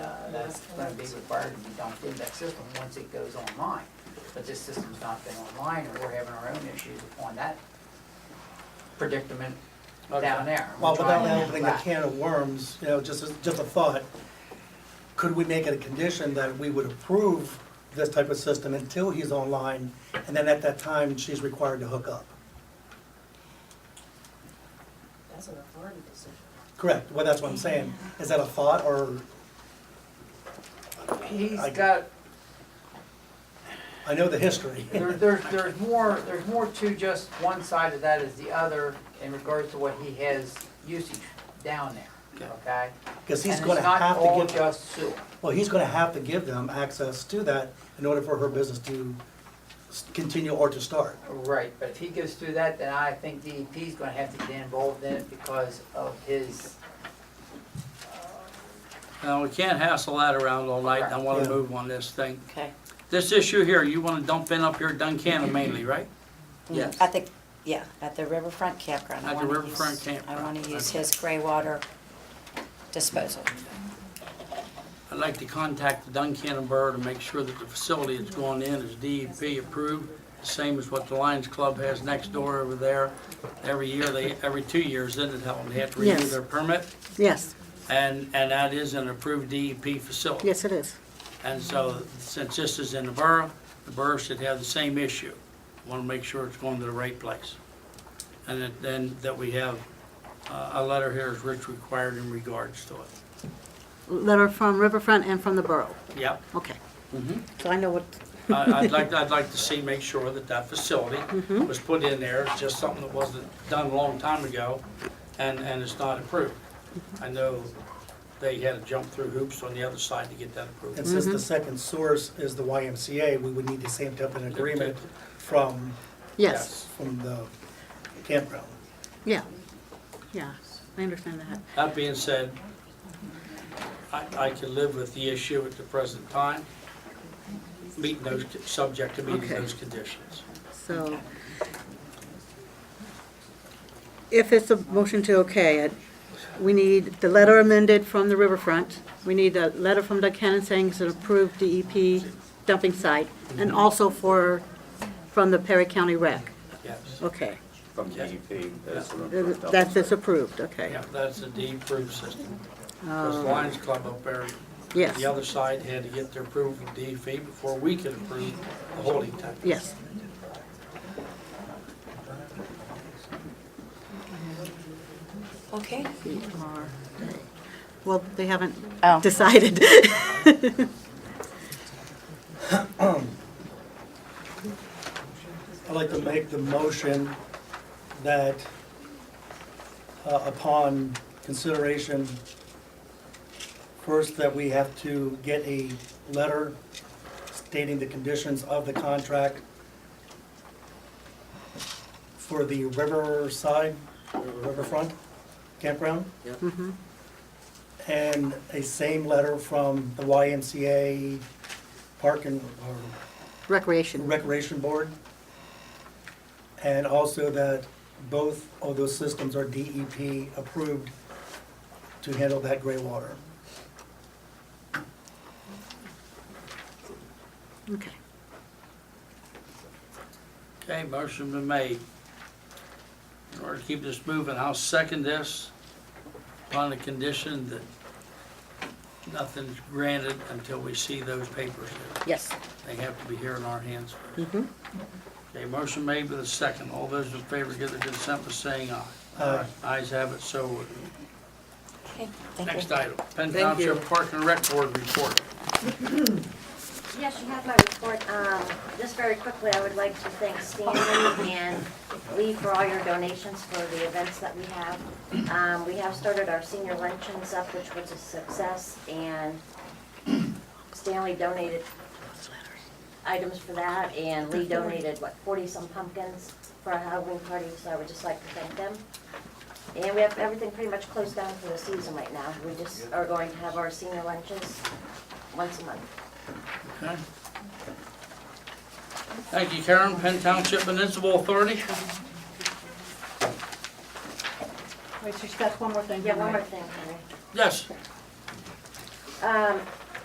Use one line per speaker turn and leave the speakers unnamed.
Uh,
that's gonna be required to be dumped in that system once it goes online. But this system's not been online, and we're having our own issues upon that predicament down there. We're
Well, without
trying to
opening a
back-
can of worms, you know, just, just a thought, could we make it a condition that we would approve this type of system until he's online, and then at that time, she's required to hook up?
That's an authority decision.
Correct, well, that's what I'm saying, is that a thought, or,
He's
I-
got,
I know the history.
there, there's, there's more, there's more to just one side of that as the other in regards to what he has usage down there, okay?
Because he's
And
gonna have
It's not all
to give,
just sewer.
well, he's gonna have to give them access to that in order for her business to s- continue or to start.
Right, but if he goes through that, then I think DEP's gonna have to get involved in it because of his,
Now, Uh, we can't hassle that around all night, and I wanna
Yeah.
move on this thing.
Okay.
This issue here, you wanna dump in up here at Duncannon mainly, right? Yes.
At the, yeah, at the riverfront campground.
Mm.
I
At the
wanna
riverfront
use- I
campground,
want to use
okay.
his gray water disposal.
I'd like to contact the Duncannon Borough to make sure that the facility that's going in is DEP approved, the same as what the Lions Club has next door over there. Every year, they, every two years, then it helps, they have to renew
Yes.
their permit,
Yes,
and, and that is an approved DEP facility.
yes, it is.
And so, since this is in the borough, the borough should have the same issue. Want to make sure it's going to the right place. And that- then, that we have uh, a letter here as Rich required in regards to it.
Letter from Riverfront and from the borough.
Yep.
Okay,
Mhm.
so I know what,
I- I'd like, I'd like to see, make sure that that facility was put in there, It's just something that wasn't done a long time ago, and, and it's not approved. I know they had to jump through hoops on the other side to get that
And
approved.
since the
Mm-hmm.
second source is the YMCA, we would need the same type of agreement from,
yes,
from the campground.
yeah, yeah, I understand that.
That being said, I, I can live with the issue at the present time, meeting those, subject to meeting
Okay.
those conditions.
So if it's a motion to okay it, we need the letter amended from the riverfront. We need a letter from Doug Cannon saying it's an approved DEP dumping site and also for, from the Perry County Rec.
Yes.
Okay,
from E DEP. that's what I'm-
that's, it's approved, okay, Um,
Yeah, that's a D-approved system. Because Lions Club up there,
yes.
the other side had to get their approval from DEP before we could approve the holding tank.
Yes.
Okay.
Well, they haven't
Oh.
decided.
I'd like to make the motion that uh, upon consideration, first that we have to get a letter stating the conditions of the contract for the riverside, riverfront campground. And a same letter from the YMCA Park and, or
Recreation,
Recreation Board. And also that both of those systems are DEP approved to handle that gray water.
okay.
Okay, motion been made. In order to keep this moving, I'll second this upon the condition that nothing's granted until we see those papers.
Yes.
They have to be here in our hands.
Mhm.
Okay, motion made with a second. All those in favor give their consent by saying aye.
Aye.
Ayes have it, so ordered.
Okay, thank
Next
you.
item, Penn Township Park and Rec Board report.
Yes, you have my report. Um, Just very quickly, I would like to thank Stanley and Lee for all your donations for the events that we have. Um, We have started our senior luncheons up, which was a success, and Stanley donated items for that, and Lee donated, what, 40-some pumpkins for our Halloween party, so I would just like to thank them. And we have everything pretty much closed down for the season right now. We just are going to have our senior lunches once a month.
Okay. Thank you, Karen. Penn Township Municipal Authority.
Wait, she's got one more thing.
Yeah, one more thing, Henry.
Yes,
Um,